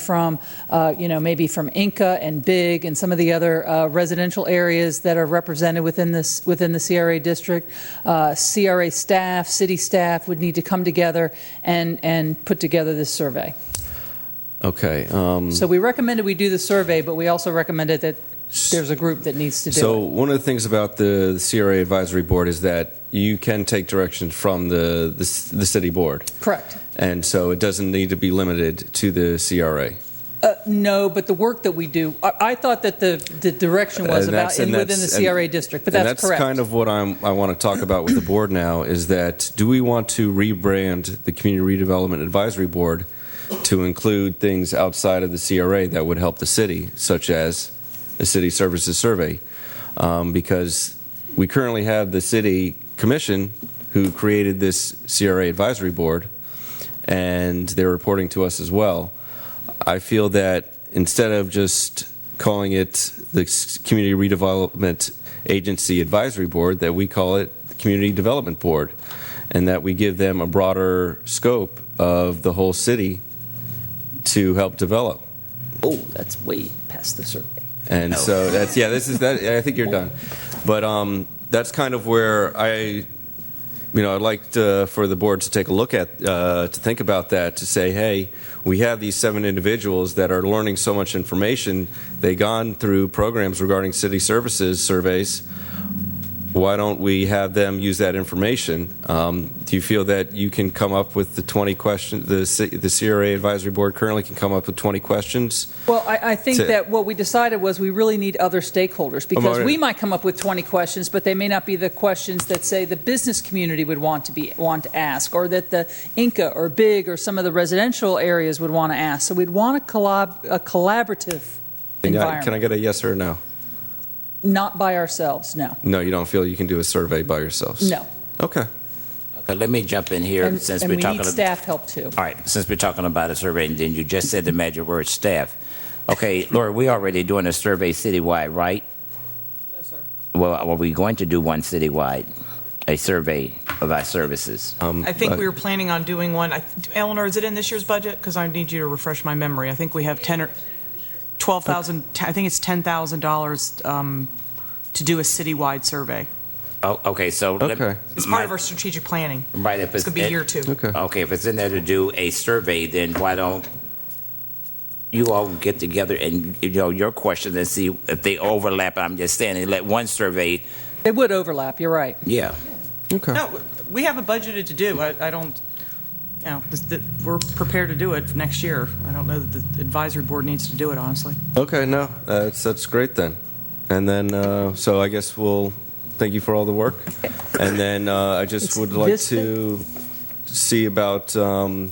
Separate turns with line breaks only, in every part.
from, uh, you know, maybe from Inca and Big and some of the other uh, residential areas that are represented within this, within the CRA district. Uh, CRA staff, city staff would need to come together and, and put together this survey.
Okay, um,
So we recommended we do the survey, but we also recommended that there's a group that needs to
so
do it.
one of the things about the CRA advisory board is that you can take direction from the, the c- the city board,
Correct.
and so it doesn't need to be limited to the CRA.
Uh, No, but the work that we do, I, I thought that the, the direction was
And
about,
that's- and
in within the
that's-
CRA
and-
district, but
and
that's
that's kind
correct.
of what I'm, I want to talk about with the board now is that do we want to rebrand the community redevelopment advisory board to include things outside of the CRA that would help the city, such as the city services survey? Um, because we currently have the city commission who created this CRA advisory board, and they're reporting to us as well. I feel that instead of just calling it the S- Community Redevelopment Agency Advisory Board, that we call it the Community Development Board, and that we give them a broader scope of the whole city to help develop.
Oh, that's way past the survey.
And so that's yeah. This is that. I think you're done, but um, that's kind of where I, you know, I'd like to, for the board to take a look at uh, to think about that to say, hey, we have these seven individuals that are learning so much information. They gone through programs regarding city services surveys. Why don't we have them use that information? Um, do you feel that you can come up with the 20 questions? The, C- the CRA advisory board currently can come up with 20 questions.
Well, I, I think
to-
that what we decided was we really need other stakeholders because
already-
we might come up with 20 questions, but they may not be the questions that, say, the business community would want to be, want to ask, or that the Inca or Big or some of the residential areas would want to ask. So we'd want a collab, a collaborative
Can I,
environment.
can I get a yes or a no?
Not by ourselves, no,
No, you don't feel you can do a survey by yourselves?
no.
Okay.
Okay, let me jump in here
And
since
and
we're
we
talking.
need staff help too.
All right, since we're talking about a survey, and then you just said the magic word, staff. Okay, Laura, we already doing a survey citywide, right?
No, sir.
Well, are we going to do one citywide, a survey of our services?
Oh.
I think we were planning on doing one. I- Eleanor, is it in this year's budget? Because I need you to refresh my memory. I think we have 10 or 12,000, I think it's $10,000 um, to do a citywide survey.
Oh, okay, so. let-
Okay.
It's part of our strategic planning.
Right, if
It's
it's.
going to be year two.
Okay.
Okay, if it's in there to do a survey, then why don't you all get together and, you know, your questions and see if they overlap? I'm just saying, and let one survey,
They would overlap, you're right.
yeah.
Okay.
No, we have it budgeted to do. I I don't, you know, this- that- we're prepared to do it next year. I don't know that the advisory board needs to do it, honestly.
Okay, no, that's, that's great then. And then, uh, so I guess we'll, thank you for all the work. And then uh, I just
It's
would like
this
to see about, um,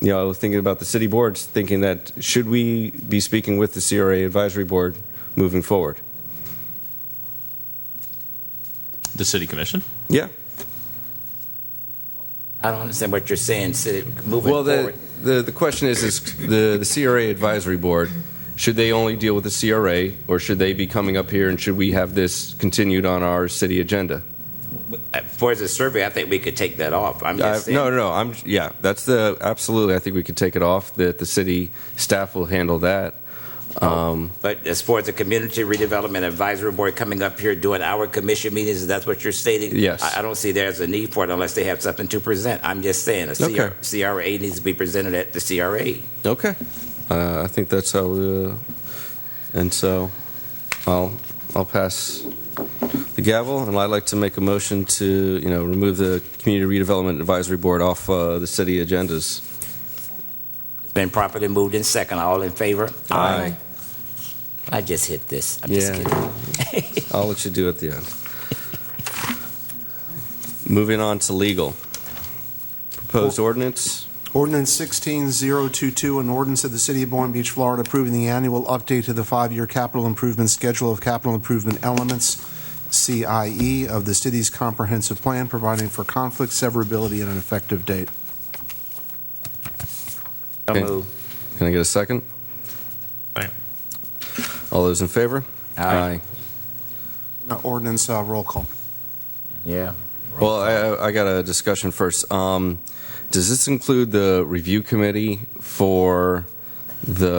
you know, thinking about the city boards, thinking that should we be speaking with the CRA advisory board moving forward?
The city commission?
Yeah.
I don't understand what you're saying, city, moving
Well,
forward.
the, the, the question is, is the, the CRA advisory board, should they only deal with the CRA, or should they be coming up here, and should we have this continued on our city agenda?
Uh, For the survey, I think we could take that off. I'm
I,
just saying.
Uh, no, no, no, I'm, yeah, that's the, absolutely, I think we could take it off, that the city staff will handle that. Um,
But as far as the Community Redevelopment Advisory Board coming up here doing our commission meetings, that's what you're stating?
Yes.
I, I don't see there's a need for it unless they have something to present. I'm just saying, a CR,
Okay.
CRA needs to be presented at the CRA.
okay, uh, I think that's how, uh, and so, I'll, I'll pass the gavel, and I'd like to make a motion to, you know, remove the Community Redevelopment Advisory Board off, uh, the city agendas.
It's been properly moved in second. All in favor?
Aye.
I just hit this. I'm just
Yeah.
kidding.
I'll let you do it at the end. Moving on to legal. Proposed ordinance.
Ordinance 16022, an ordinance of the City of Boynton Beach, Florida, approving the annual update to the five-year capital improvement schedule of capital improvement elements, CIE, of the city's comprehensive plan, providing for conflict, severability, and an effective date.
So
Okay.
moved.
Can I get a second?
Aye.
All those in favor?
Aye.
Now, Ordinance, uh, roll call.
Yeah.
Well, I, I got a discussion first. Um, does this include the review committee for the